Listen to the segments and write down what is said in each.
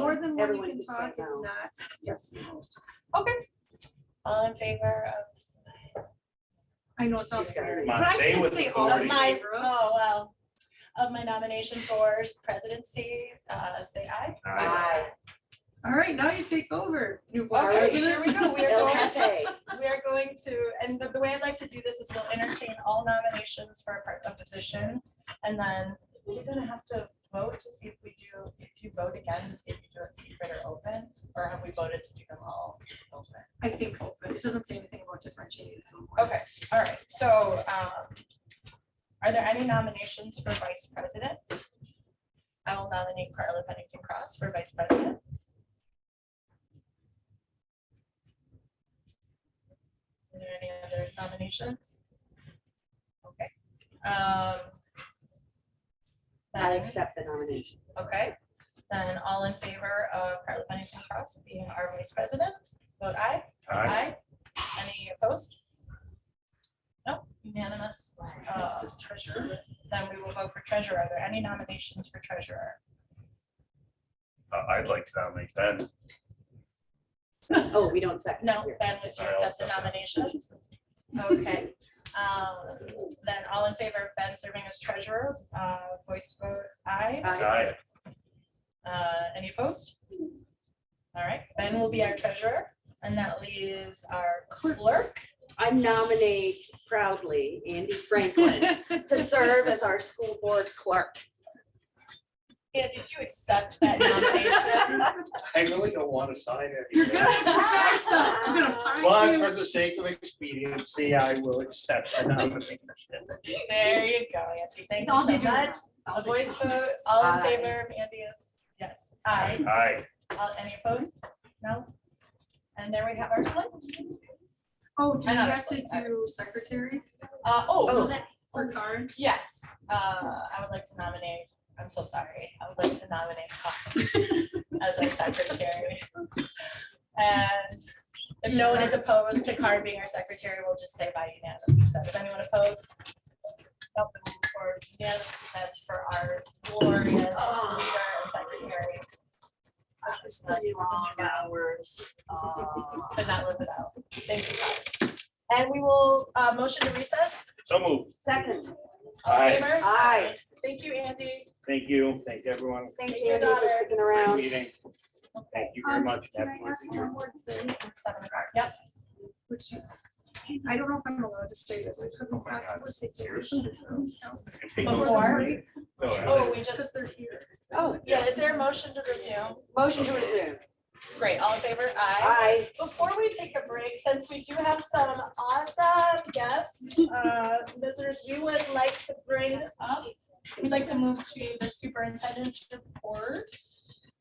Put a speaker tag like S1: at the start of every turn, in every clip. S1: you
S2: everyone
S1: can
S2: could say
S1: talk, if
S2: no.
S1: not, yes.
S2: Okay.
S3: All in favor of?
S1: I know it sounds
S2: She's got
S1: weird.
S2: it.
S1: but I
S4: Monte
S1: can't
S4: with
S1: say
S4: authority.
S1: all
S3: Of
S1: in
S3: my,
S1: favor of.
S3: oh, well, of my nomination for presidency, uh, say aye.
S4: Aye.
S1: All right, now you take over, new board
S3: Okay, here
S1: president.
S3: we go. We are
S2: El
S3: going,
S2: Cate.
S3: we are going to, and the, the way I'd like to do this is we'll entertain all nominations for a part-time position. And then we're gonna have to vote to see if we do, if you vote again, to see if you do it secret or open, or have we voted to do them all open?
S1: I think open, it doesn't say anything about differentiating. from one.
S3: Okay, all right, so, um, are there any nominations for vice president? I will nominate Carla Pennington Cross for vice president. Are there any other nominations? Okay, um.
S2: I
S3: then-
S2: accept the nomination.
S3: okay, then all in favor of Carla Pennington Cross being our vice president, vote aye.
S4: Aye.
S3: Any opposed? No, unanimous. Uh,
S1: Next is treasurer.
S3: Then we will vote for treasurer. Are there any nominations for treasurer?
S4: Uh, I'd like to nominate Ben.
S2: Oh, we don't second.
S3: No,
S2: here.
S3: Ben, would you
S4: I'll
S3: accept the
S4: accept that.
S3: nomination? Okay. Um, Then all in favor of Ben serving as treasurer, uh, voice vote aye.
S4: Aye.
S3: Uh, Any opposed? All right, Ben will be our treasurer, and that leaves our clerk.
S2: I nominate proudly Andy Franklin to serve as our school board clerk.
S3: Yeah, did you accept that nomination?
S5: I really don't want to sign
S1: You're gonna
S5: anything.
S1: have to sign stuff, I'm gonna find
S5: But
S1: you.
S5: for the sake of expediency, I will accept the nomination.
S3: There you go, Andy, thank you
S1: All they
S3: so
S1: do
S3: much.
S1: is-
S3: A voice vote, all in
S2: Aye.
S3: favor of Andy is, yes, aye.
S4: Aye.
S3: All- Any opposed? No? And there we have our slate.
S1: Oh, do
S3: I
S1: you
S3: know,
S1: have
S3: just
S1: to
S3: like, I-
S1: do secretary
S3: Uh,
S2: Oh.
S3: oh,
S1: or card?
S3: yes, uh, I would like to nominate, I'm so sorry, I would like to nominate Colin as our secretary. And if no one is opposed to Carr being our secretary, we'll just say by unanimous consent. Is anyone opposed? Nope, we'll move forward. unanimous consent for our glorious leader
S2: Ah.
S3: and secretary.
S2: Uh, Long hours. uh,
S3: Could not live without. Thank you, Carr. And we will, uh, motion to recess.
S4: So moved.
S2: Second,
S3: All in
S4: Aye.
S3: favor?
S2: Aye.
S3: Thank you, Andy.
S5: Thank you. Thank everyone
S2: thanks
S3: Thank you,
S2: Andy for
S3: daughter.
S2: sticking
S5: for the
S2: around.
S5: meeting. Thank you very
S1: Um,
S5: much.
S1: Can
S5: everyone.
S1: I ask one more thing?
S3: It's Seven o'clock. Yep.
S1: Which you- I don't know if I'm allowed to say this. I couldn't
S4: Oh my God,
S1: possibly say
S4: it's yours.
S1: this.
S3: Before?
S4: No, I-
S3: Oh, we just,
S1: Because they're here.
S2: Oh,
S3: yeah, is there a motion to resume?
S2: motion to resume.
S3: Great, all in favor?
S2: Aye.
S3: Aye. Before we take a break, since we do have some awesome guests, uh, visitors, we would like to bring up, we'd like to move to the superintendent's report.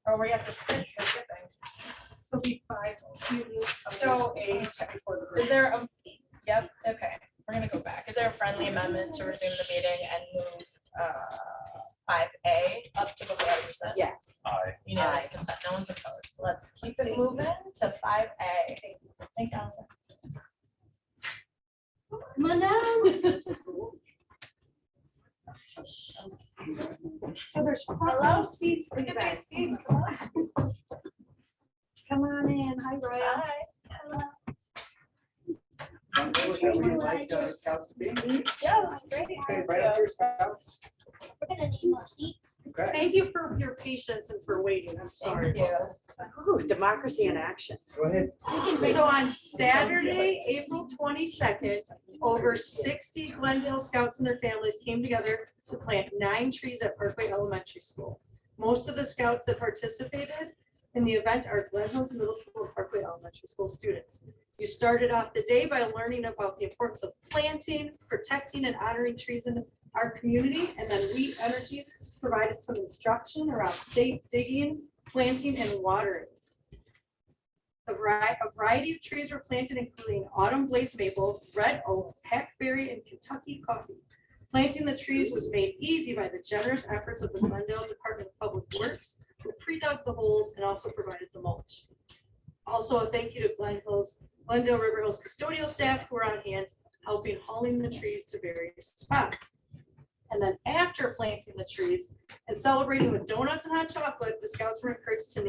S3: Or we have to skip the shipping.
S1: It'll be five.
S3: So-
S1: Eight before the break.
S3: Is there a, yep, okay, we're gonna go back. Is there a friendly amendment to resume the meeting and move uh, five A up to before recess?
S2: Yes.
S4: Aye.
S3: Unanimous consent, no one's opposed. Let's keep it moving to five A. Thanks, Allison.
S2: So there's
S3: Hello?
S2: seats
S3: Look at these seats, come on.
S2: Come on in. Hi, Brian.
S3: Hi.
S5: Is that what you'd like, uh, Scouts to be?
S3: Yeah, that's great.
S5: Okay, right up here, Scouts.
S6: We're gonna need more seats.
S5: Okay.
S2: Thank you for your patience and for waiting. I'm sorry.
S3: Thank you.
S2: Ooh, democracy in action.
S5: Go ahead.
S2: So on Saturday, April twenty-second, over sixty Glenville scouts and their families came together to plant nine trees at Parkway Elementary School. Most of the scouts that participated in the event are Glenville Middle School and Parkway Elementary School students. You started off the day by learning about the importance of planting, protecting, and honoring trees in our community, and then We Energies provided some instruction around safe digging, planting, and watering. A variety, a variety of trees were planted, including autumn blaze maple, red oak, hackberry, and Kentucky coffee. Planting the trees was made easy by the generous efforts of the Glendale Department of Public Works, who pre-dug the holes and also provided the mulch. Also, a thank you to Glen Hills, Glendale River Hills custodial staff who were on hand helping hauling the trees to various spots. And then after planting the trees and celebrating with donuts and hot chocolate, the scouts were encouraged to